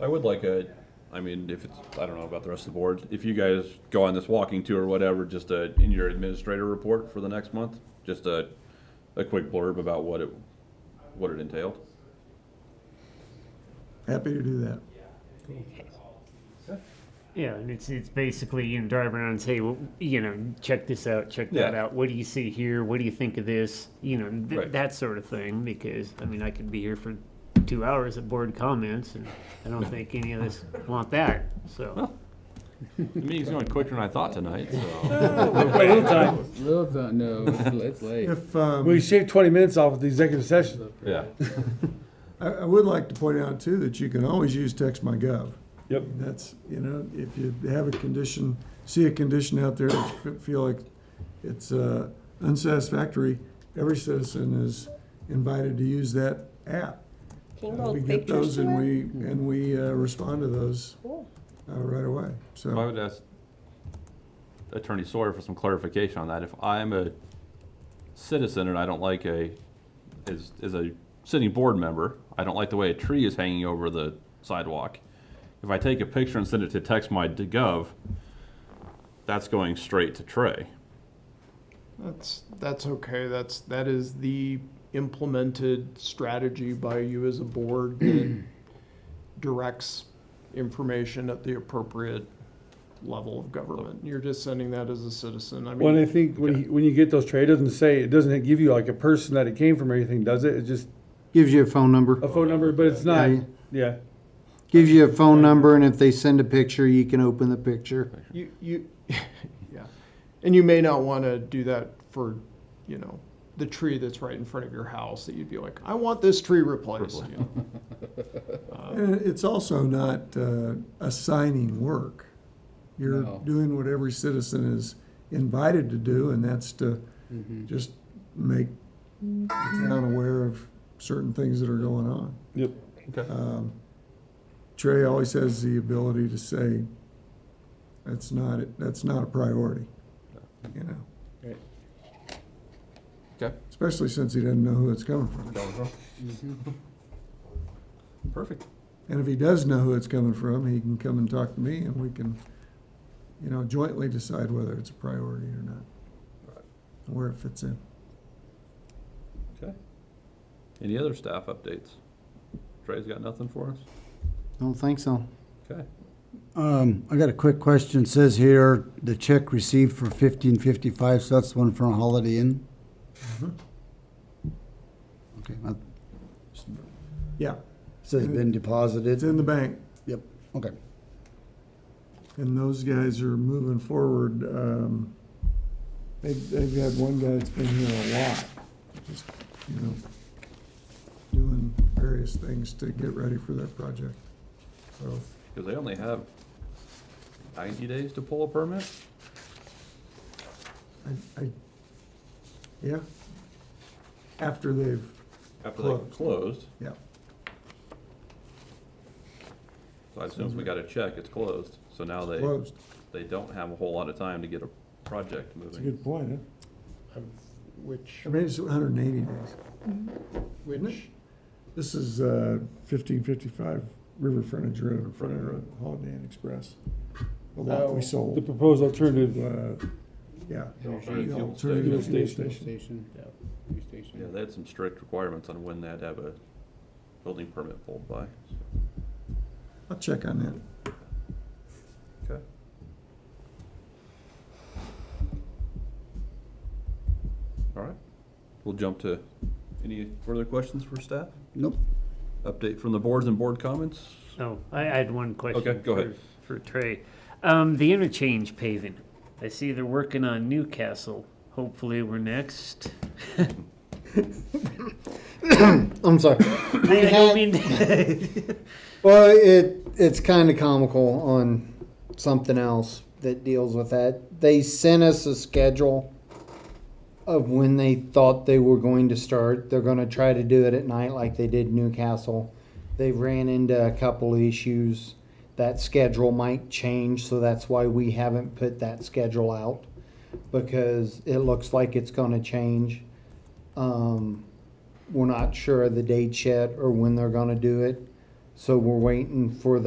I would like a, I mean, if it's, I don't know about the rest of the board, if you guys go on this walking tour or whatever, just a, in your administrator report for the next month, just a, a quick blurb about what it, what it entailed. Happy to do that. Yeah, and it's it's basically you know drive around and say, well, you know, check this out, check that Yeah. out. What do you see here? What do you think of this? You know, th- Right. that sort of thing. Because I mean, I could be here for two hours at board comments, and I don't think any of us want that. So The meeting's going quicker than I thought tonight, so. Little time. No, it's, it's late. If, um, We shaved 20 minutes off of the executive session. Yeah. I, I would like to point out too, that you can always use text my gov. Yep. That's, you know, if you have a condition, see a condition out there that you feel like it's uh, unsatisfactory, every citizen is invited to use that app. Can you Uh, We hold get those pictures to and it? we, and we uh, respond to those Cool. uh, right away, so. I would ask Attorney Sawyer for some clarification on that. If I'm a citizen and I don't like a, as, as a sitting board member, I don't like the way a tree is hanging over the sidewalk. If I take a picture and send it to text my gov, that's going straight to Trey. That's that's okay. That's that is the implemented strategy by you as a board that directs information at the appropriate level of government. You're just sending that as a citizen. I When I mean, think, when you, when you get those trades, it doesn't say, it doesn't give you like a person that it came from or anything, does it? It's just Gives you a phone number. a phone number, but it's not, Yeah. yeah. Gives you a phone number, and if they send a picture, you can open the picture. you you yeah, and you may not want to do that for you know the tree that's right in front of your house that you'd be like, I want this tree replaced. And it's also not uh, assigning work. You're No. doing what every citizen is invited to do, and that's to just make the town aware of certain things that are going on. Yep. Okay. Um, Trey always has the ability to say, "That's not it. That's not a priority," you know. Right. Okay. Especially since he doesn't know who it's coming from. Perfect. And if he does know who it's coming from, he can come and talk to me and we can, you know, jointly decide whether it's a priority or not. and Where it fits in. Any other staff updates? Trey's got nothing for us? Don't think so. Okay. Um, I got a quick question. It says here, the check received for fifteen fifty-five, so that's the one from Holiday Inn? Okay, that Yeah, says been it's deposited. in the bank Yep, okay. and those guys are moving forward. Um, they've, they've had one guy that's been here a lot, just, you know, doing various things to get ready for their project. So, Because they only have ninety days to pull a permit? I, I, yeah. After they've, After they Closed. closed, yeah, so I assume if we got a check, it's closed. So now they. Mm-hmm. closed. they don't have a whole lot of time to get a project That's a moving. good point, huh? Which I mean, it's 180 days. which This is uh, 1555 River Frontage Road, in front Frontage of Road. Holiday Inn Express. The lot we Oh. The sold, proposed alternative, uh, yeah. Fuel The station. alternative Fuel Station. New station. Yeah, they had some strict requirements on when they had to have a building permit pulled by. I'll check on that. Okay. All right, we'll jump to, any further questions for staff? Nope. Update from the boards and board comments? oh, I, I had one question. Okay, go ahead. For, for Trey, um, the interchange paving. I see they're working on Newcastle. Hopefully, we're next. I'm sorry. I don't mean to- Well, it it's kind of comical on something else that deals with that. They sent us a schedule of when they thought they were going to start. They're going to try to do it at night like they did Newcastle. They ran into a couple issues. That schedule might change, so that's why we haven't put that schedule out because it looks like it's going to change. Um, we're not sure of the dates yet or when they're going to do it. So we're waiting for